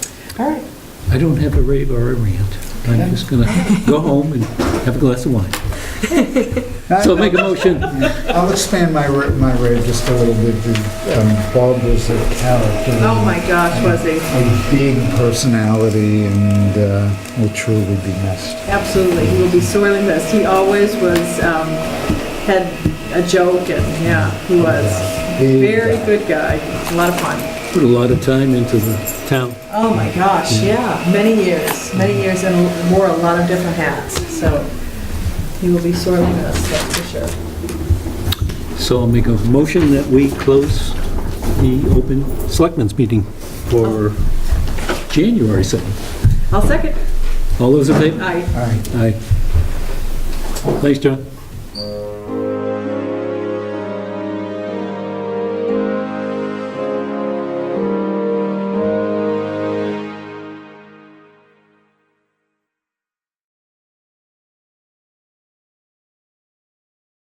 All right. I don't have a rave or a rant. I'm just going to go home and have a glass of wine. So make a motion. I'll expand my, ra- my rave just a little bit. The, um, Bob was a character. Oh my gosh, was he? A big personality and uh, will truly be missed. Absolutely, he will be sorely missed. He always was, um, had a joke and, yeah, he was. Big Very guy. good guy, a lot of fun. Put a lot of time into the town. Oh my gosh, yeah, many years, many years and wore a lot of different hats, so he will be sorely missed, that's for sure. So I'll make a motion that we close the open selectmen's meeting for January 7th. I'll second. All those in favor? Aye. All right. Aye. Thanks, John.